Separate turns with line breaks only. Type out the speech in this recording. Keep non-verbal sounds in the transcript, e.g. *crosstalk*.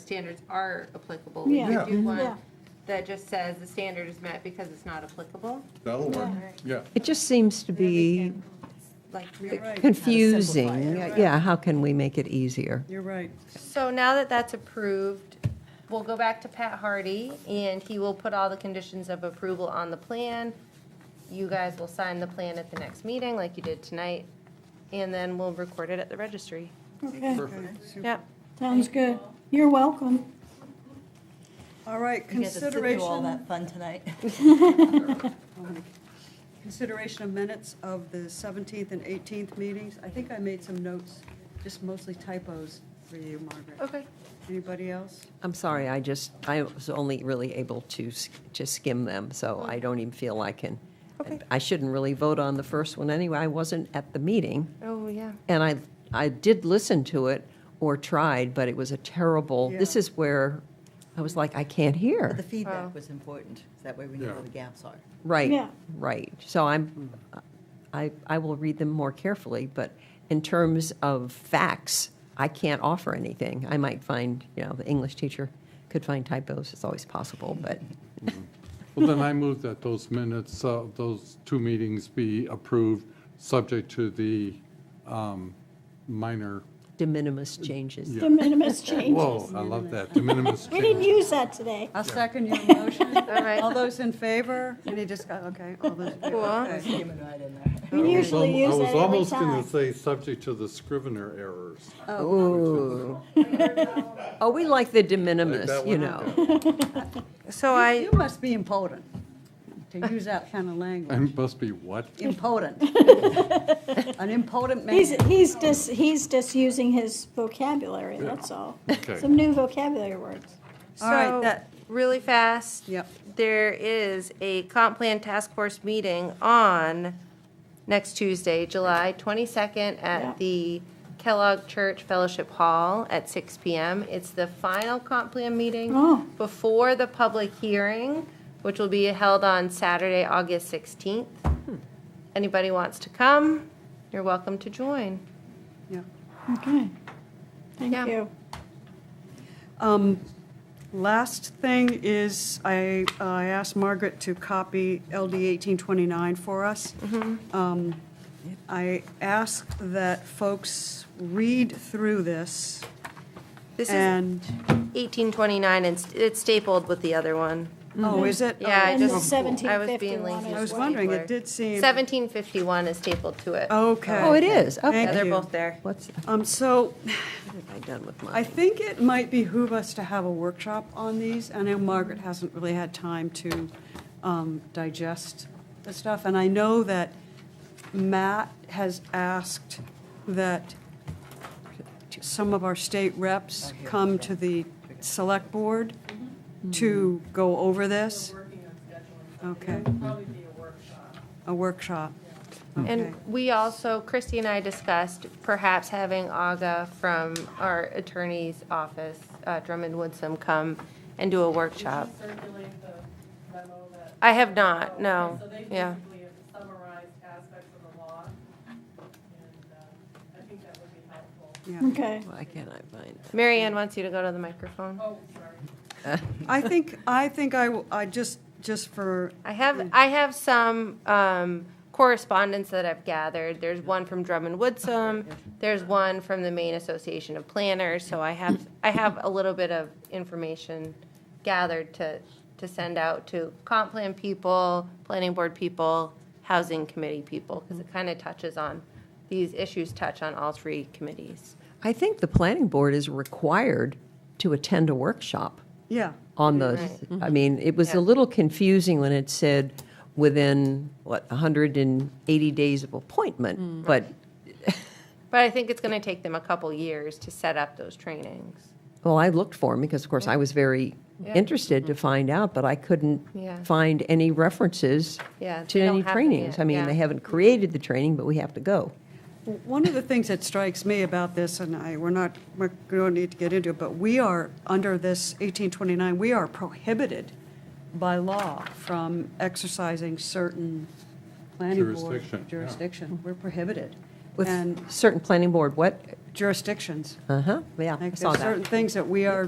standards are applicable. We
Yeah.
could do
Yeah.
one
Yeah.
that just says the standard is met because it's not applicable.
That'll work, yeah.
It just seems to be
Like,
confusing. Yeah, how can we make it easier?
You're right.
so now that that's approved, we'll go back to Pat Hardy and he will put all the conditions of approval on the plan. You guys will sign the plan at the next meeting like you did tonight, and then we'll record it at the registry.
Okay,
Yep.
sounds good. You're welcome. All right,
You get to sit through all
consideration,
that fun
*laughs*
tonight.
consideration of minutes of the 17th and 18th meetings. I think I made some notes, just mostly typos for you, Margaret.
Okay.
Anybody else?
I'm sorry, I just, I was only really able to s- just skim them, so I don't even feel I can.
Okay.
I shouldn't really vote on the first one anyway. I wasn't at the meeting,
Oh, yeah.
and I, I did listen to it or tried, but it was a terrible, this
Yeah.
is where I was like, I can't hear.
But the
Oh.
feedback was important, 'cause that way we know
Yeah.
where the gaps are.
Right,
Yeah.
right. So I'm, I, I will read them more carefully, but in terms of facts, I can't offer anything. I might find, you know, the English teacher could find typos, it's always possible, but
Well, then I move that those minutes, uh, those two meetings be approved, subject to the um, minor,
de minimis changes.
Yeah.
De minimis
*laughs* whoa,
changes.
I love that, de minimis
We didn't
change.
use that today.
I'll second *laughs* your motion.
All right.
All those in favor? Any discuss, okay, all those in favor.
Cool.
It's
Okay.
human right in there.
We
I was al-
usually use
I was
that every
almost going
time.
to say, subject to the Scrivener errors.
Ooh. Oh, we like the de minimis,
that
you
one?
know.
So
You
I,
must be impotent to use that kind of
I
language.
must be what?
*laughs*
Impotent. An impotent man.
He's, he's just, he's just using his vocabulary, that's all.
Okay.
Some new vocabulary words.
All right,
so,
that-
really fast.
Yep.
There is a comp plan task force meeting on next Tuesday, July 22nd,
Yeah.
at the Kellogg Church Fellowship Hall at 6 PM. It's the final comp plan meeting
Oh.
before the public hearing, which will be held on Saturday, August 16th. Anybody wants to come, you're welcome to join.
Yeah.
Okay.
Yeah.
Thank you.
Um, Last thing is, I, I asked Margaret to copy LD 1829 for us. Um, I ask that folks read through this
This is
and,
1829, and st- it's stapled with the other one.
oh, is it?
Yeah, I
And the
just, I was being
1751
lazy.
as
I was
well.
wondering, it did seem,
1751 is stapled to it.
okay.
Oh, it is,
Yeah,
okay.
uh, Thank
They're
you.
both there.
What's, what
Um, So
have I done with
I
mine?
think it might behoove us to have a workshop on these. I know Margaret hasn't really had time to um, digest the stuff, and I know that Matt has asked that some of our state reps come to the select board to go over this. Okay. A workshop.
And
Okay.
we also, Christy and I discussed perhaps having Aga from our attorney's office, uh, Drummond Woodsum, come and do a workshop.
circulate the memo that,
I have not, no,
so they
Oh, yeah.
basically have summarized aspects of the law. And uh, I think that would be helpful.
Okay.
Why can't I find that?
Mary Ann wants you to go to the microphone.
Oh, sorry.
I think, I think I, will- I just, just for
I have, I have some um, correspondence that I've gathered. There's one from Drummond Woodsum. There's one from the Maine Association of Planners. So I have, I have a little bit of information gathered to, to send out to comp plan people, planning board people, housing committee people, because it kind of touches on, these issues touch on all three committees.
I think the planning board is required to attend a workshop.
Yeah,
on the, I mean, it was
Yeah.
a little confusing when it said within, what, 180 days of
Mm.
appointment, but,
But I think it's going to take them a couple years to set up those trainings.
well, I looked for them because, of course, I was very interested to find out, but I couldn't
Mm. Yeah.
find any references
Yeah,
to
they don't
any
have them
trainings.
yet,
I mean,
yeah.
they haven't created the training, but we have to go.
One of the things that strikes me about this, and I, we're not, we don't need to get into it, but we are, under this 1829, we are prohibited by law from exercising certain planning board.
Jurisdiction, yeah.
Jurisdiction, we're prohibited. And
With certain planning board, what,
jurisdictions.
uh-huh, yeah, I
Like,
saw
there's certain
that.
things that we are